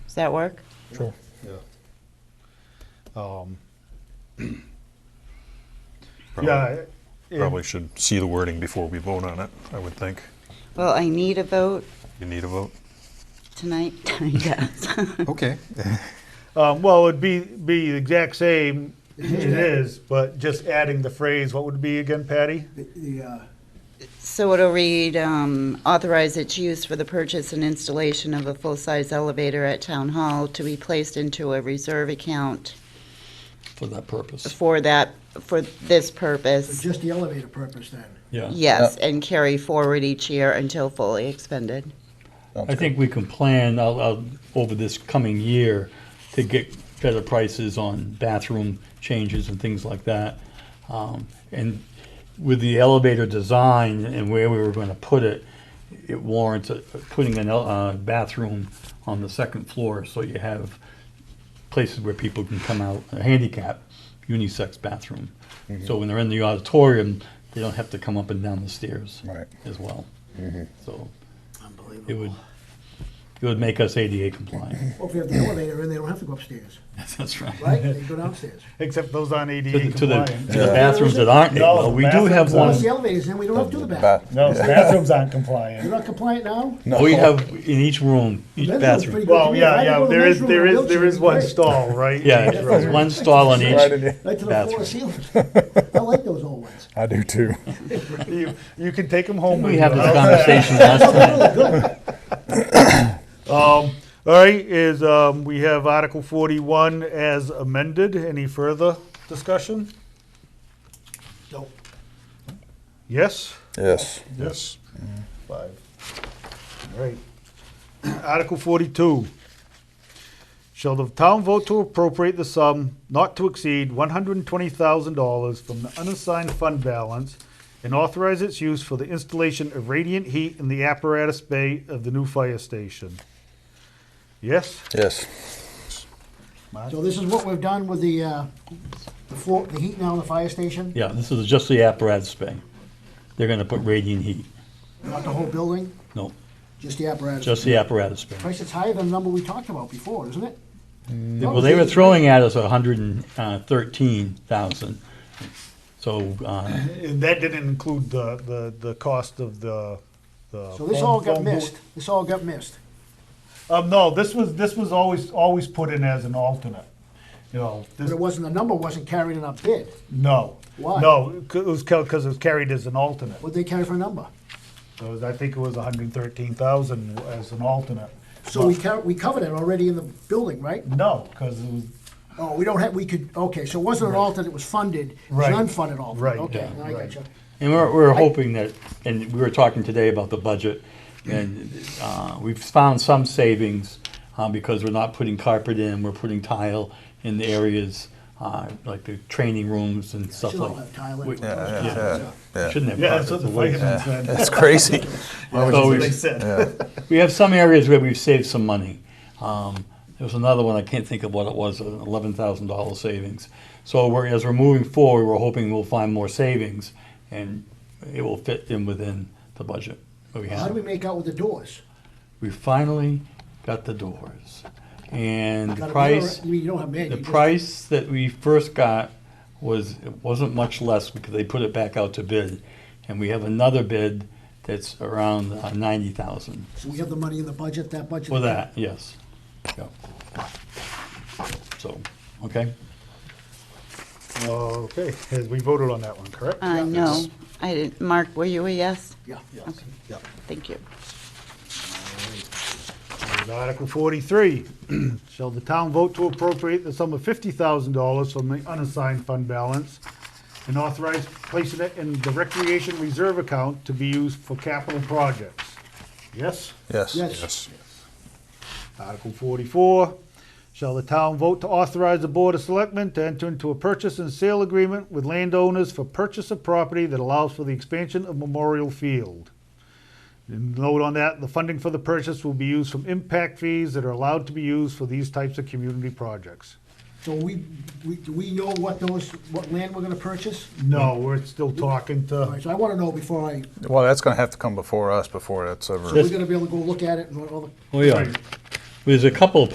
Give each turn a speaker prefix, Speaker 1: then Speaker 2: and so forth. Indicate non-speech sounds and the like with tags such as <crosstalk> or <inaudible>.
Speaker 1: Does that work?
Speaker 2: Sure.
Speaker 3: Yeah.
Speaker 2: Um,
Speaker 3: Probably-
Speaker 2: Yeah, it-
Speaker 3: Probably should see the wording before we vote on it, I would think.
Speaker 1: Well, I need a vote
Speaker 3: You need a vote?
Speaker 1: tonight. <laughs> Yes.
Speaker 3: Okay.
Speaker 2: um, well, it'd be, be the exact same, it is, but just adding the phrase, what would it be again, Patty?
Speaker 4: The- The, uh,
Speaker 1: So it'll read, um, authorize its use for the purchase and installation of a full-size elevator at Town Hall to be placed into a reserve account
Speaker 5: for that purpose.
Speaker 1: for that, for this purpose.
Speaker 4: just uh, the elevator purpose then.
Speaker 5: Yeah.
Speaker 1: Yes, and carry forward each year until fully expended.
Speaker 5: I think we can plan out, out over this coming year to get better prices on bathroom changes and things like that. Um, and with the elevator design and where we were gonna put it, it warrants uh, putting an, el- uh, bathroom on the second floor, so you have places where people can come out, a handicap, unisex bathroom. So when they're in the auditorium, they don't have to come up and down the stairs
Speaker 6: Right.
Speaker 5: as well. So it
Speaker 4: Unbelievable.
Speaker 5: would, it would make us ADA
Speaker 4: <laughs>
Speaker 5: compliant.
Speaker 4: Well, if you have the elevator in, they don't have to go upstairs,
Speaker 5: That's
Speaker 4: right? They go downstairs.
Speaker 2: Except those on
Speaker 5: To
Speaker 2: ADA
Speaker 5: the, to the
Speaker 2: compliant.
Speaker 5: <laughs> to the bathrooms that aren't,
Speaker 2: No,
Speaker 5: well,
Speaker 2: the
Speaker 5: we do have
Speaker 2: bathrooms
Speaker 5: one,
Speaker 4: Once the elevator's in, we don't have to do the
Speaker 6: Bath-
Speaker 4: bathroom.
Speaker 2: No, the bathrooms aren't
Speaker 4: You're
Speaker 2: compliant.
Speaker 4: not compliant now?
Speaker 5: Oh, we have in each room, each
Speaker 4: Men's room's
Speaker 5: bathroom.
Speaker 4: pretty good to
Speaker 2: Well,
Speaker 4: me.
Speaker 2: yeah,
Speaker 4: I
Speaker 2: yeah,
Speaker 4: go to
Speaker 2: there
Speaker 4: men's
Speaker 2: is,
Speaker 4: room
Speaker 2: there
Speaker 4: in a
Speaker 2: is, there
Speaker 4: wheelchair,
Speaker 2: is one
Speaker 4: great.
Speaker 2: stall, right?
Speaker 5: Yeah, there's one stall
Speaker 6: Right
Speaker 5: in each,
Speaker 6: in here.
Speaker 4: Right to the floor
Speaker 5: bathroom.
Speaker 4: ceiling.
Speaker 5: <laughs>
Speaker 4: I like those old ones.
Speaker 6: I do too.
Speaker 2: You, you can take them home.
Speaker 5: we
Speaker 2: with
Speaker 5: had
Speaker 2: you.
Speaker 5: this conversation last time.
Speaker 2: Um, all right, is, um, we have Article forty-one as amended. Any further discussion?
Speaker 4: Nope.
Speaker 2: Yes?
Speaker 6: Yes.
Speaker 2: Yes. Five. All right. <clears throat> Article forty-two. Shall the town vote to appropriate the sum not to exceed one hundred and twenty thousand dollars from the unassigned fund balance and authorize its use for the installation of radiant heat in the apparatus bay of the new fire station? Yes?
Speaker 6: Yes.
Speaker 4: So this is what we've done with the, uh, the floor, the heat now in the fire station?
Speaker 5: Yeah, this is just the apparatus bay. They're gonna put radiant heat.
Speaker 4: Not the whole building,
Speaker 5: No,
Speaker 4: just the apparatus.
Speaker 5: just the apparatus bay.
Speaker 4: Price is higher than the number we talked about before, isn't it?
Speaker 5: Well, they were throwing at us hundred and uh, thirteen thousand. So, uh,
Speaker 2: And that didn't include the, the, the cost of the, the.
Speaker 4: So this
Speaker 2: phone-
Speaker 4: all got
Speaker 2: phone booth.
Speaker 4: missed. This all got missed.
Speaker 2: Um, no, this was, this was always, always put in as an alternate, you know,
Speaker 4: But
Speaker 2: this,
Speaker 4: it wasn't, the number wasn't carried in our bid.
Speaker 2: no.
Speaker 4: Why?
Speaker 2: No, c- it was, because it was carried as an alternate,
Speaker 4: What'd they carry for a number?
Speaker 2: it was, I think it was hundred and thirteen thousand as an alternate.
Speaker 4: So we covered, we covered it already in the building, right?
Speaker 2: No, because it was,
Speaker 4: Oh, we don't have, we could, okay, so it wasn't an alternate, it was funded, it was
Speaker 2: Right.
Speaker 4: an unfunded alternate.
Speaker 2: Right,
Speaker 4: Okay,
Speaker 5: yeah,
Speaker 4: now I
Speaker 2: right.
Speaker 4: gotcha.
Speaker 5: And we're, we're hoping that, and we were talking today about the budget, and uh, we've found some savings uh, because we're not putting carpet in, we're putting tile in the areas, uh, like the training rooms and stuff
Speaker 4: Should all
Speaker 5: like.
Speaker 4: have tile
Speaker 5: we-
Speaker 4: in. Yeah,
Speaker 6: Yeah.
Speaker 5: we Shouldn't have
Speaker 2: yeah, that's what
Speaker 5: carpet.
Speaker 2: the
Speaker 5: the way-
Speaker 2: firemen <laughs> said.
Speaker 6: It's crazy.
Speaker 2: That's what
Speaker 5: we-
Speaker 2: they said.
Speaker 5: We have some areas where we've saved some money. Um, There was another one, I can't think of what it was, an eleven thousand dollar savings. So we're, as we're moving forward, we're hoping we'll find more savings, and it will fit in within the budget that we have.
Speaker 4: How do we make out with the doors?
Speaker 5: we finally got the doors. And the
Speaker 4: Gotta be
Speaker 5: price,
Speaker 4: all right. You don't have many.
Speaker 5: the
Speaker 4: you just-
Speaker 5: price that we first got was, it wasn't much less because they put it back out to bid. And we have another bid that's around uh, ninety thousand
Speaker 4: So we have the money in the budget, that budget.
Speaker 5: for that, yes. Yeah. So, okay,
Speaker 2: <laughs> Okay, as we voted on that one, correct?
Speaker 1: Uh, no, I didn't, Mark, were you a yes?
Speaker 4: Yeah.
Speaker 1: Okay.
Speaker 2: Yeah.
Speaker 1: Thank you.
Speaker 2: Is Article forty-three, <clears throat> shall the town vote to appropriate the sum of fifty thousand dollars from the unassigned fund balance and authorize placing it in the recreation reserve account to be used for capital projects? Yes?
Speaker 6: <laughs> Yes.
Speaker 4: Yes.
Speaker 2: Article forty-four, shall the town vote to authorize the Board of Selectmen to enter into a purchase and sale agreement with landowners for purchase of property that allows for the expansion of Memorial Field? And Note on that, the funding for the purchase will be used from impact fees that are allowed to be used for these types of community projects.
Speaker 4: So we, we, do we know what those, what land we're gonna purchase?
Speaker 2: No, we're still talking
Speaker 4: All right,
Speaker 2: to,
Speaker 4: so I wanna know before I, so
Speaker 6: Well, that's going to have to come before us before that's ever.
Speaker 4: we're gonna be able to go look at it and all the
Speaker 5: oh yeah. There's a couple of